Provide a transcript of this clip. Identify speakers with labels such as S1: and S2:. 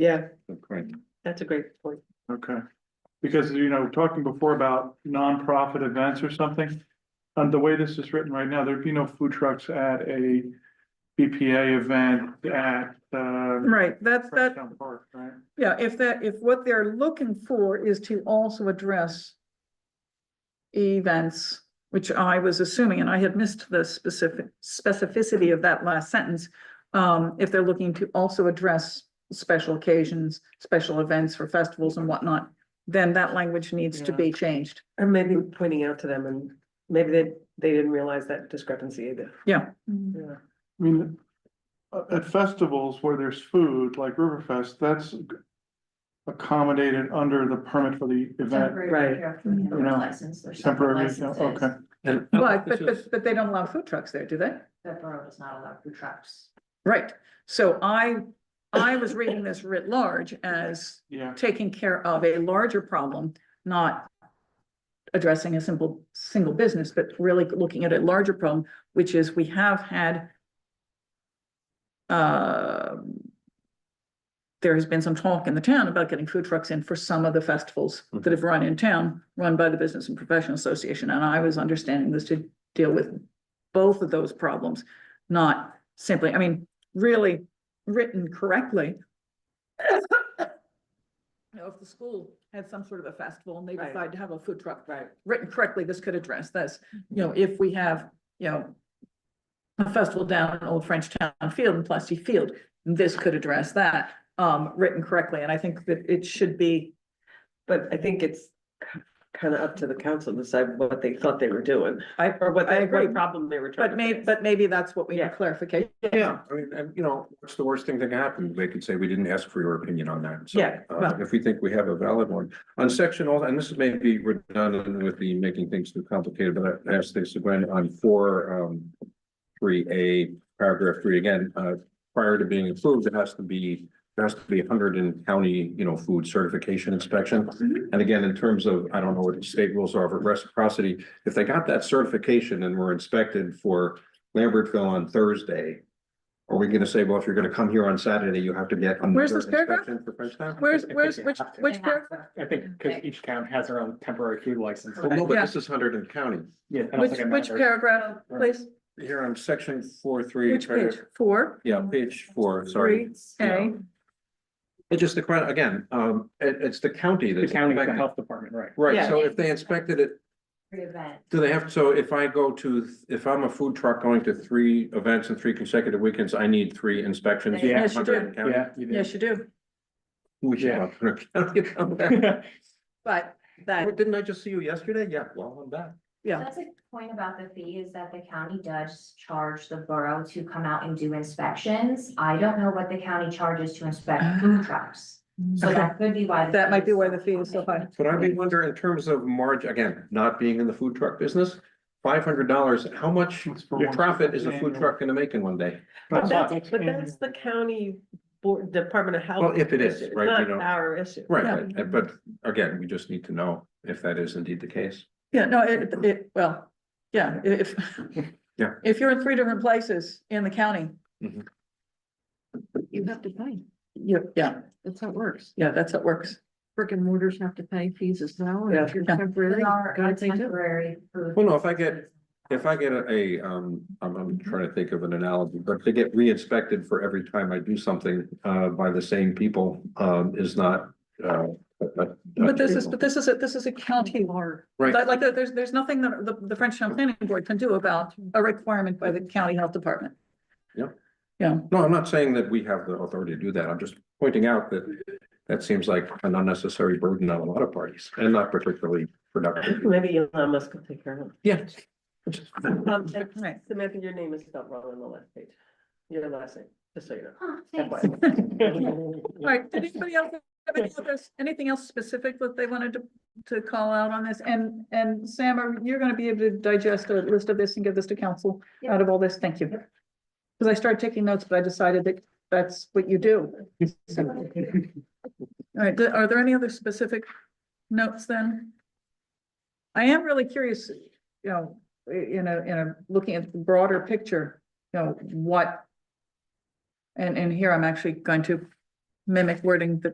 S1: Yeah,
S2: Correct.
S1: that's a great point.
S3: Okay, because you know, talking before about nonprofit events or something. And the way this is written right now, there'd be no food trucks at a BPA event at uh.
S4: Right, that's that,
S3: Freshtown Park, right?
S4: yeah, if that, if what they're looking for is to also address events, which I was assuming, and I had missed the specific specificity of that last sentence. Um, if they're looking to also address special occasions, special events for festivals and whatnot, then that language needs to
S3: Yeah.
S4: be changed.
S1: Or maybe pointing out to them and maybe they, they didn't realize that discrepancy either.
S4: Yeah.
S1: Yeah.
S3: I mean, uh, at festivals where there's food, like Riverfest, that's accommodated under the permit for the event.
S1: Right.
S3: You know, Temporary, yeah, okay.
S2: And.
S4: But, but, but, but they don't allow food trucks there, do they?
S5: The borough does not allow food trucks.
S4: Right, so I, I was reading this writ large as
S3: Yeah,
S4: taking care of a larger problem, not addressing a simple, single business, but really looking at a larger problem, which is we have had um, there has been some talk in the town about getting food trucks in for some of the festivals that have run in town, run by the Business and Professional Association, and I was understanding this to deal with both of those problems, not simply, I mean, really written correctly, you know, if the school had some sort of a festival and they
S1: Right.
S4: decide to have a food truck,
S1: Right.
S4: written correctly, this could address this. You know, if we have, you know, a festival down in Old French Town Field and Plasty Field, this could address that, um, written correctly. And I think that it should be,
S1: But I think it's kind of up to the council to decide what they thought they were doing
S4: I,
S1: or what,
S4: I
S1: they-
S4: agree.
S1: what problem they were trying
S4: but
S1: to
S4: may,
S1: fix.
S4: but maybe that's what we
S1: Yeah.
S4: need clarification.
S2: Yeah, I mean, and you know, what's the worst thing that can happen? They could say, we didn't ask for your opinion on that. So,
S1: Yeah,
S2: uh,
S4: well-
S2: If we think we have a valid one. On section all, and this may be redundant with the making things too complicated, but I asked this when on four, um. Three A, paragraph three, again, uh, prior to being approved, it has to be, there has to be hundred in county, you know, food certification inspection.
S4: Mm-hmm.
S2: And again, in terms of, I don't know what the state rules are, but reciprocity, if they got that certification and were inspected for Lambertville on Thursday. Are we gonna say, well, if you're gonna come here on Saturday, you have to get.
S4: Where's this
S2: another
S4: paragraph?
S2: inspection for Frenchtown?
S4: Where's, where's, which, which
S5: They
S4: paragraph?
S5: have to.
S6: I think,
S4: Mm,
S6: because each town has their own temporary food license.
S2: Well, no,
S4: Yeah.
S2: but this is Hunterdon County.
S6: Yeah, I don't
S4: Which,
S6: think it
S4: which
S6: matters.
S4: paragraph, please?
S2: Here on section four, three.
S4: Which page? Four,
S2: Yeah, page four, sorry.
S4: three, A.
S2: It's just the, credit- again, um, it, it's the county
S6: The
S2: that's.
S6: county, the
S2: affected.
S6: health department, right.
S2: Right,
S1: Yeah.
S2: so if they inspected it
S5: Free event.
S2: Do they have, so if I go to, if I'm a food truck going to three events in three consecutive weekends, I need three inspections?
S5: Yeah.
S4: Yes, you do.
S2: Yeah.
S6: you do.
S4: Yes, you do.
S2: We should.
S6: Yeah.
S2: have county come back.
S4: But that,
S2: Oh, Didn't I just see you yesterday? Yeah, well, I'm back.
S4: yeah,
S5: That's a point about the fee is that the county does charge the borough to come out and do inspections. I don't know what the county charges to inspect food trucks. So
S4: Ah. Okay.
S5: that could be why. the
S4: that
S5: fee
S4: might be
S5: is
S4: why the fee is so high.
S2: But I mean, wonder in terms of margin, again, not being in the food truck business, five hundred dollars, how much
S3: It's for one-
S2: profit is a food
S3: annual.
S2: truck gonna make in one day?
S1: But
S3: That's
S1: that's,
S3: not-
S1: but that's the county board, Department of Health.
S2: Well, if it is,
S1: issue. It's
S2: right, you
S1: Not
S2: know.
S1: our issue.
S2: Right, but, but again, we just need to know if that is indeed the case.
S4: Yeah, no, it, it, well, yeah, i- if.
S2: Yeah.
S4: If you're in three different places in the county.
S2: Mhm.
S4: You have to pay. Yeah, yeah,
S7: That's how it works.
S4: yeah, that's what works.
S7: Brick and mortars have to pay fees as well. and if you're
S4: Yeah.
S7: temporary,
S5: They are a
S7: gotta pay too.
S5: temporary food.
S2: Well, no, if I get- If I get a, um, I'm, I'm trying to think of an analogy, but to get re-inspected for every time I do something, uh, by the same people, um, is not, uh. a- a-
S4: But this is, but this is, a this is a county law.
S2: Right.
S4: Like, like, there's, there's nothing that the, the French Town Planning Board can do about a requirement by the county health department.
S2: Yeah.
S4: Yeah,
S2: No, I'm not saying that we have the authority to do that. I'm just pointing out that that seems like an unnecessary burden on a lot of parties and not particularly productive.
S1: Maybe Elon Musk will take care of
S2: Yeah.
S1: it. Um, and
S4: right.
S1: Samantha, your name is spelled wrong on the last page. Your last name, just so you know.
S5: Huh, thanks.
S4: All right, did anybody else have any others, anything else specific that they wanted to, to call out on this? And, and Sam, are- you're gonna be able to digest a list of this and give this to council out of all this? Thank you. Cause I started taking notes, but I decided that that's what you do. So- All right, th- are there any other specific notes then? I am really curious, you know, i- in a, in a, looking at the broader picture, you know, what and, and here I'm actually going to mimic wording that